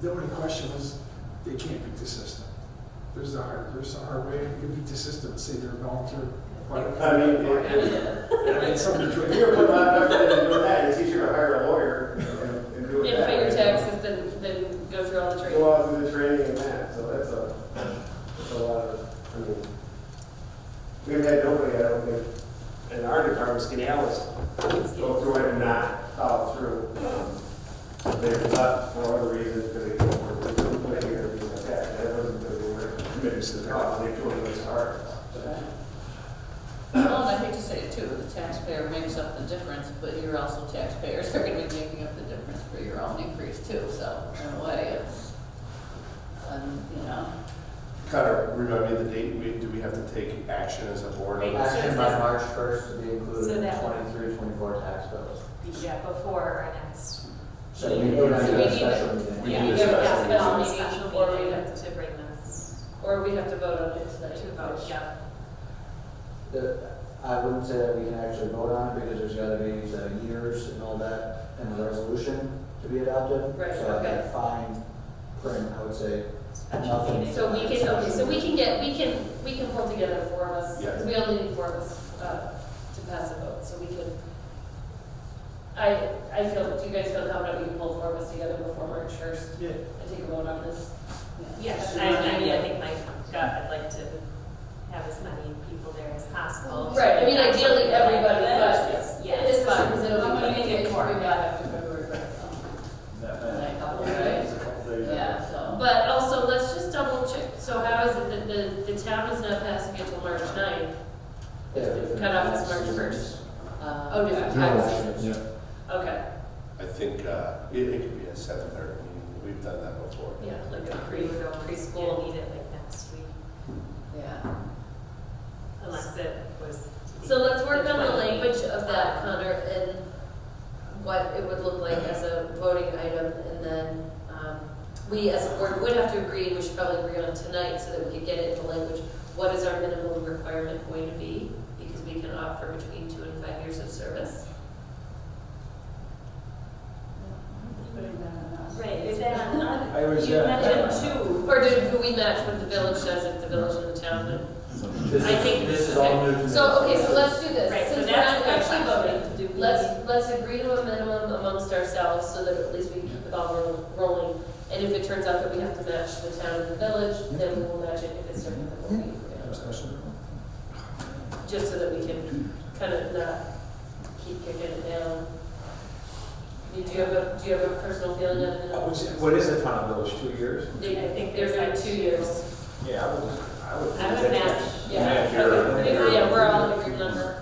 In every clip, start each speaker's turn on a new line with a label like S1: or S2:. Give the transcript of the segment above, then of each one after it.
S1: the only question is, they can't beat the system. There's a hard, there's a hard way, you can beat the system and say they're a volunteer
S2: I
S1: firefighter.
S2: mean, if- if
S1: I mean, something between-
S2: if you're putting on enough effort into doing that, it's easier to hire a lawyer and and do it
S3: And
S2: that way.
S3: pay your taxes than, than go through all the
S2: Go
S3: training.
S2: out through the training and that, so that's a, that's a lot of, I mean, we've had nobody, I don't think, in our department, Skinny Alice, go through it and not follow through. Um, They left for other reasons, because they don't work, they couldn't play here, things like that, that wasn't because they weren't committed to the cause, they tore it apart.
S4: Well, and I hate to say it too, the taxpayer makes up the difference, but you're also taxpayers are gonna be making up the difference for your own increase too, so in a way, it's, um, you know,
S5: Kind of remind me of the date, we, do we have to take action as a board?
S3: Right.
S5: on that?
S6: Action by March first to be included
S3: So
S6: in
S3: that-
S6: 23-24 tax bills.
S3: Yeah, before our next.
S6: So we don't have to
S3: So
S6: have
S3: we
S6: a
S3: need
S6: special
S3: to-
S6: meeting.
S5: We
S3: Yeah,
S5: need
S3: we
S5: a
S3: have
S5: special
S3: to have a
S4: meeting.
S3: special meeting, or we have to bring this
S4: or we have to vote on it
S3: to
S4: tonight.
S3: vote, yeah.
S6: The- I wouldn't say that we can actually vote on it because there's gotta be the years and all that and the resolution to be adopted.
S4: Right,
S6: So
S4: okay.
S6: that fine print, I would say,
S3: Special
S6: nothing.
S3: meeting. So we can, okay, so we can get, we can, we can pull together four of us,
S5: Yeah.
S3: we only need four of us, uh, to pass a vote, so we can. I, I feel, do you guys feel confident we can pull four of us together before March first
S1: Yeah,
S3: and take a vote on this?
S7: Yes, I, I mean, I think my gut, I'd like to have as many people there as possible.
S3: Right, I mean, ideally, everybody,
S7: Yes,
S3: but
S7: yes.
S3: it's fine, because it'll.
S4: I'm gonna make it
S3: We
S4: four.
S3: got after February first.
S4: Like,
S1: that,
S4: couple
S1: that
S4: days.
S1: is a couple days.
S4: Yeah, so.
S3: But also, let's just double check, so how is it that the, the town is not passing it till March ninth? Cut off is March first.
S4: uh,
S3: Oh, different taxes,
S6: Yeah.
S3: okay,
S5: I think, uh, it, it could be a seven thirty meeting, we've done that before.
S3: yeah, like a
S7: Pre,
S3: pre,
S7: preschool need it like next week,
S4: Yeah.
S7: unless it was.
S3: So let's work on the language of that, Connor, and what it would look like as a voting item, and then, um, we as a board would have to agree, and we should probably agree on tonight, so that we could get it in the language, what is our minimum requirement going to be? Because we can offer between two and five years of service.
S4: Putting that on us.
S7: Right, is that on, on-
S1: I was,
S7: you
S1: uh,
S7: mentioned two.
S3: Or do, do we match what the village does, if the village and the town, and
S6: This
S3: I think-
S6: is, this is all new to me.
S3: So, okay, so let's do this,
S7: Right, so
S3: since we're
S7: that's
S3: not
S7: what
S3: actually
S7: I'm
S3: voting,
S7: Do we-
S3: let's, let's agree to a minimum amongst ourselves, so that at least we keep the ball roll- rolling. And if it turns out that we have to match the town and the village, then we will match it if it's certain that we'll be,
S1: Have a special meeting.
S3: just so that we can kind of not keep kicking it down. Do you have a, do you have a personal feeling on
S6: Uh,
S3: it?
S6: which- What is the town village, two years?
S3: They, I think there's like two years.
S6: Yeah, I would, I would.
S7: I would match.
S3: Yeah,
S6: Yeah, you're-
S3: okay,
S6: you're-
S3: yeah, we're all in agreement on that.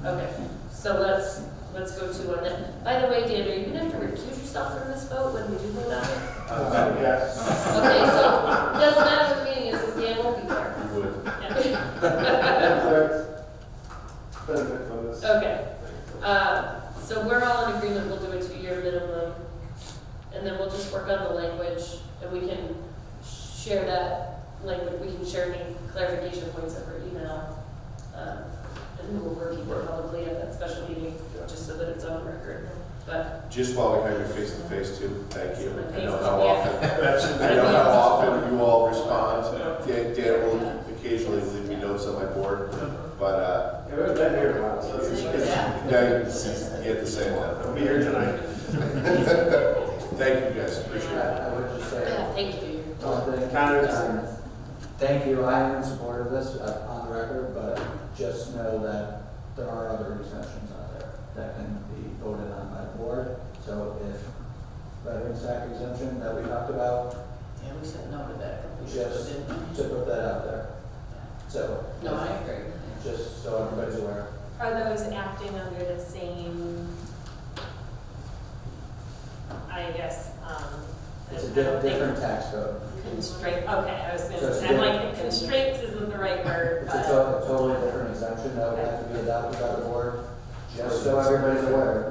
S6: Yeah.
S3: Okay, so let's, let's go to one then. By the way, Dan, are you gonna have to recuse yourself from this vote when we do vote on it?
S2: Uh, yeah.
S3: Okay, so, doesn't matter what the meeting is, 'cause Dan won't be there.
S5: You would.
S2: Benefit from this.
S3: Okay, uh, so we're all in agreement, we'll do a two-year minimum, and then we'll just work on the language, and we can share that language, we can share any clarification points over email, um, and we'll work it publicly at that special meeting, just so that it's on record, but.
S5: Just while we have you face to face too, thank you. I know how
S3: Yeah.
S5: often, I know how often you all respond. Dan, Dan will occasionally leave me notes on my board, but, uh,
S2: Yeah, we've been here a while, so
S5: it's,
S2: it's,
S5: it's,
S4: Yeah.
S5: yeah, you get the same one.
S2: I'll be here tonight.
S5: Thank you guys, appreciate
S6: I
S5: it.
S6: I would just say,
S3: Yeah, thank you.
S6: something.
S2: Connor,
S6: um, Thank you, I am in support of this uh, on the record, but just know that there are other exemptions out there that can be voted on by the board. So if veterans act exemption that we talked about,
S4: Yeah, we said no to that. We should have
S6: just
S4: been-
S6: to put that out there. So,
S4: No, I agree.
S6: just so everybody's aware.
S7: Are those acting under the same, I guess, um.
S6: It's a
S7: I
S6: di-
S7: don't think-
S6: different tax code.
S7: Constraint, okay, I was
S6: So
S7: gonna
S6: it's
S7: say, I'm like,
S6: different.
S7: constraints isn't the right word,
S6: It's a
S7: but.
S6: to- a totally different exemption that would have to be adopted by the board, just so everybody's aware.